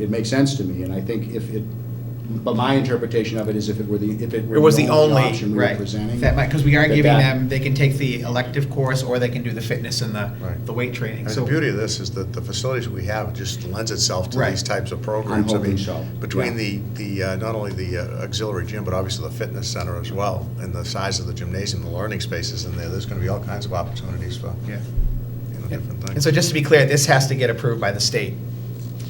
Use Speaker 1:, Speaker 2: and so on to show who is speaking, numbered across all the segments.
Speaker 1: it makes sense to me, and I think if it, but my interpretation of it is if it were the, if it were
Speaker 2: It was the
Speaker 1: the only
Speaker 2: only,
Speaker 1: option we were
Speaker 3: Right.
Speaker 1: presenting.
Speaker 3: That might, because we are
Speaker 1: that
Speaker 3: giving
Speaker 1: that-
Speaker 3: them, they can take the elective course, or they can do the fitness and the,
Speaker 4: Right.
Speaker 3: the weight training.
Speaker 4: And
Speaker 3: So
Speaker 4: the beauty of this is that the facilities we have just lends itself to
Speaker 3: Right.
Speaker 4: these types of programs. I
Speaker 1: hoping
Speaker 4: mean,
Speaker 1: so, yeah.
Speaker 4: Between the, the, uh, not only the uh, auxiliary gym, but obviously the fitness center as well, and the size of the gymnasium, the learning spaces in there, there's going to be all kinds of opportunities for, you
Speaker 3: Yeah.
Speaker 4: know, different
Speaker 3: And
Speaker 4: things.
Speaker 3: so just to be clear, this has to get approved by the state,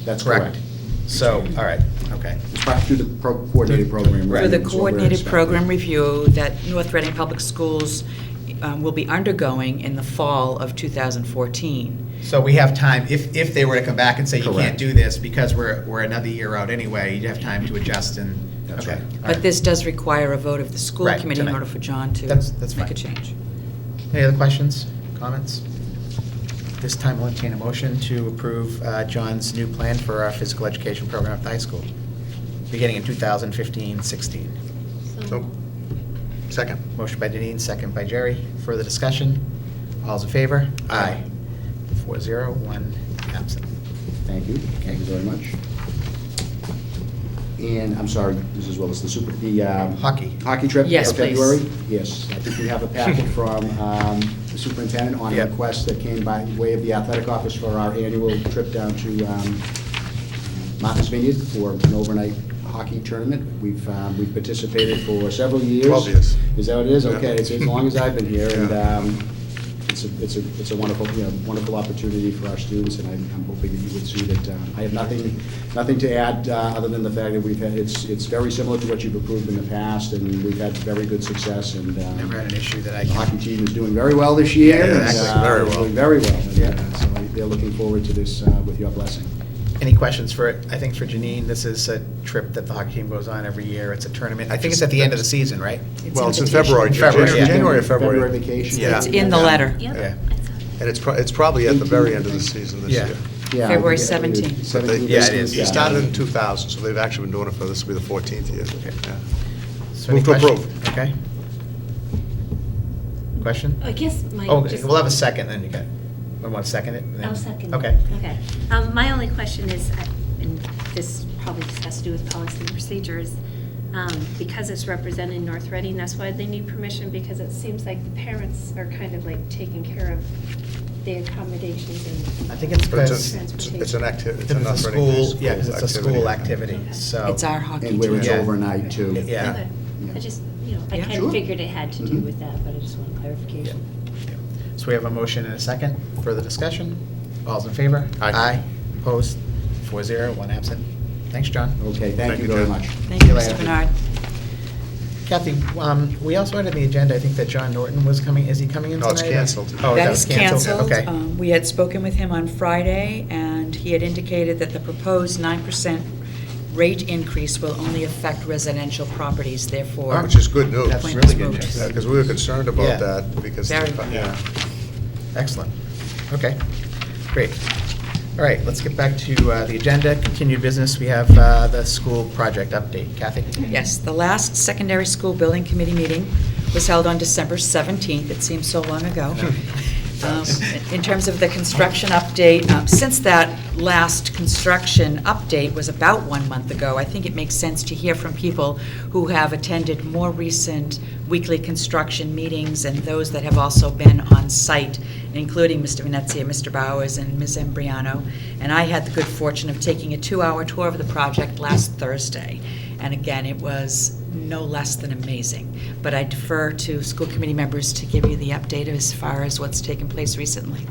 Speaker 1: That's
Speaker 3: correct?
Speaker 1: correct.
Speaker 3: So, all right, okay.
Speaker 1: It's part- Through the pro- coordinated program.
Speaker 3: Right.
Speaker 5: For
Speaker 1: review
Speaker 5: the
Speaker 1: is what we're
Speaker 5: coordinated
Speaker 1: expecting.
Speaker 5: program review that North Reading Public Schools um, will be undergoing in the fall of 2014.
Speaker 3: So we have time, if, if they were to come back and say, you can't
Speaker 1: Correct.
Speaker 3: do this because we're, we're another year out anyway, you'd have time to adjust and,
Speaker 1: That's
Speaker 3: okay.
Speaker 1: right.
Speaker 3: all right.
Speaker 5: But this does require a vote of the school
Speaker 3: Right,
Speaker 5: committee in
Speaker 3: tonight.
Speaker 5: order for John to
Speaker 3: That's- that's
Speaker 5: make a
Speaker 3: fine.
Speaker 5: change.
Speaker 3: Any other questions, comments? This time, we'll entertain a motion to approve uh, John's new plan for our physical education program at the high school, beginning in 2015-16.
Speaker 4: So, second.
Speaker 3: Motion by Denine, second by Jerry. Further discussion? All's in favor? Aye. Four zero, one absent.
Speaker 1: Thank you, thank you very much. And, I'm sorry, Mrs. Willis, the super, the. um,
Speaker 3: Hockey.
Speaker 1: Hockey trip
Speaker 5: Yes,
Speaker 1: for
Speaker 5: please.
Speaker 1: February? Yes, I think we have a packet from um, the superintendent on a
Speaker 3: Yep.
Speaker 1: request that came by way of the athletic office for our annual trip down to um, Martins Vineyard for an overnight hockey tournament. We've, um, we've participated for several years.
Speaker 4: Twelve years.
Speaker 1: Is that what it is?
Speaker 4: Yeah.
Speaker 1: Okay, it's as long as I've been here, and
Speaker 4: Yeah.
Speaker 1: um, it's a, it's a, it's a wonderful, you know, wonderful opportunity for our students, and I'm I'm hoping that you would see that, um, I have nothing, nothing to add, uh, other than the fact that we've had, it's, it's very similar to what you've approved in the past, and we've had very good success, and um,
Speaker 3: Never had an issue that I
Speaker 1: the hockey
Speaker 3: can...
Speaker 1: team is doing very well this year. and,
Speaker 4: Yes,
Speaker 1: uh,
Speaker 4: very well.
Speaker 1: Doing very well, and,
Speaker 3: Yeah.
Speaker 1: uh, so they're looking forward to this uh, with your blessing.
Speaker 3: Any questions for, I think for Janine, this is a trip that the hockey team goes on every year. It's a tournament. I think it's at the end of the season, right?
Speaker 4: Well, it's in February, Jan-
Speaker 3: February, yeah.
Speaker 4: January or February.
Speaker 1: February vacation.
Speaker 4: Yeah.
Speaker 5: It's in the letter.
Speaker 4: Yeah.
Speaker 6: Yep.
Speaker 4: And it's, pro- it's probably at the very end of the season this
Speaker 3: Yeah.
Speaker 4: year.
Speaker 1: Yeah, I
Speaker 5: February
Speaker 1: think it-
Speaker 5: 17th.
Speaker 4: But they-
Speaker 1: 17th,
Speaker 3: Yeah, it is.
Speaker 4: It started in 2000, so they've actually been doing it for, this will be the 14th year. Yeah.
Speaker 3: So any
Speaker 4: Move to
Speaker 3: questions?
Speaker 4: approve.
Speaker 3: Okay. Question?
Speaker 6: I guess my.
Speaker 3: Oh,
Speaker 6: Uh, just-
Speaker 3: we'll have a second, then you can, we want to second it? and then-
Speaker 6: I'll second.
Speaker 3: Okay.
Speaker 6: Okay. Um, My only question is, I- and this probably just has to do with policy and procedures, um, because it's representing North Reading, that's why they need permission, because it seems like the parents are kind of like taking care of the accommodations and.
Speaker 3: I think it's
Speaker 4: But
Speaker 3: because-
Speaker 4: It's an- it's an activity.
Speaker 3: It's a school, yeah, 'cause it's a school activity, so.
Speaker 5: It's our hockey
Speaker 1: And where
Speaker 5: team.
Speaker 1: it's
Speaker 3: Yeah.
Speaker 1: overnight, too.
Speaker 3: Yeah.
Speaker 6: Okay. I just, you know, I
Speaker 5: Yeah.
Speaker 6: kind
Speaker 1: Sure.
Speaker 6: of figured it had to do
Speaker 1: Mhm.
Speaker 6: with that, but I just want
Speaker 3: Yeah.
Speaker 6: clarification.
Speaker 3: Yeah. So we have a motion and a second. Further discussion? All's in favor?
Speaker 4: Aye.
Speaker 3: Opposed? Four zero, one absent. Thanks, John.
Speaker 1: Okay, thank
Speaker 4: Thank
Speaker 1: you
Speaker 4: you,
Speaker 1: very
Speaker 4: Jen.
Speaker 1: much.
Speaker 5: Thank you,
Speaker 3: See you later.
Speaker 5: Mr. Bernard.
Speaker 3: Kathy, um, we also had on the agenda, I think that John Norton was coming, is he coming in
Speaker 4: No,
Speaker 3: tonight?
Speaker 4: it's canceled.
Speaker 3: Oh,
Speaker 5: That is canceled.
Speaker 3: Okay.
Speaker 5: Um, We had spoken with him on Friday, and he had indicated that the proposed 9% rate increase will only affect residential properties, therefore.
Speaker 4: Which is good news.
Speaker 3: That's
Speaker 5: Point
Speaker 3: really
Speaker 5: is
Speaker 3: good
Speaker 5: moved.
Speaker 3: news.
Speaker 4: Because we were concerned
Speaker 3: Yeah.
Speaker 4: about that because.
Speaker 5: Very.
Speaker 4: yeah.
Speaker 3: Excellent. Okay, great. All right, let's get back to uh, the agenda. Continued business, we have uh, the school project update. Kathy?
Speaker 5: Yes, the last secondary school building committee meeting was held on December 17th. It seems so long ago. Um, In terms of the construction update, um, since that last construction update was about one month ago, I think it makes sense to hear from people who have attended more recent weekly construction meetings and those that have also been on site, including Mr. Venezia, Mr. Bowers, and Ms. Embriano. And I had the good fortune of taking a two-hour tour of the project last Thursday. And again, it was no less than amazing. But I defer to school committee members to give you the update as far as what's taken place recently.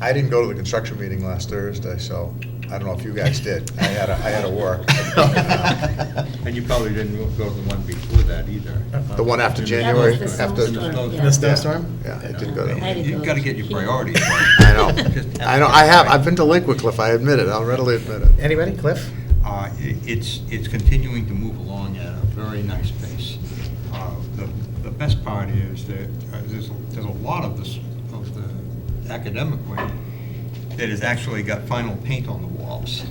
Speaker 4: I didn't go to the construction meeting last Thursday, so I don't know if you guys did. I had, a- I had to work.
Speaker 7: And you probably didn't go to the one before that either. Uh-huh.
Speaker 4: The one after
Speaker 6: That
Speaker 4: January,
Speaker 6: was the
Speaker 4: after.
Speaker 6: snowstorm,
Speaker 3: The
Speaker 6: yeah.
Speaker 3: snowstorm?
Speaker 4: Yeah, I didn't go to
Speaker 6: I
Speaker 4: that.
Speaker 6: didn't
Speaker 7: uh, You've
Speaker 6: go.
Speaker 7: got to get your priorities right.
Speaker 4: I know.
Speaker 7: Just
Speaker 4: I know, I have, I've been delinquent, Cliff, I admit it, I'll readily admit it.
Speaker 3: Anybody? Cliff?
Speaker 7: Uh, i- It's, it's continuing to move along at a very nice pace. Uh, The the best part is that uh, there's, a- there's a lot of this, of the academic wing that has actually got final paint on the walls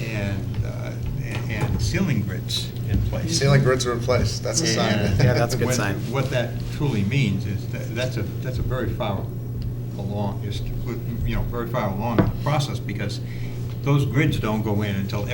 Speaker 7: and, uh, a- and ceiling grids in place.
Speaker 4: Ceiling grids are in place, that's a sign.
Speaker 7: And
Speaker 3: Yeah, that's a good
Speaker 7: what-
Speaker 3: sign.
Speaker 7: What that truly means is that, that's a, that's a very far along, is, you know, very far along in the process, because those grids don't go in until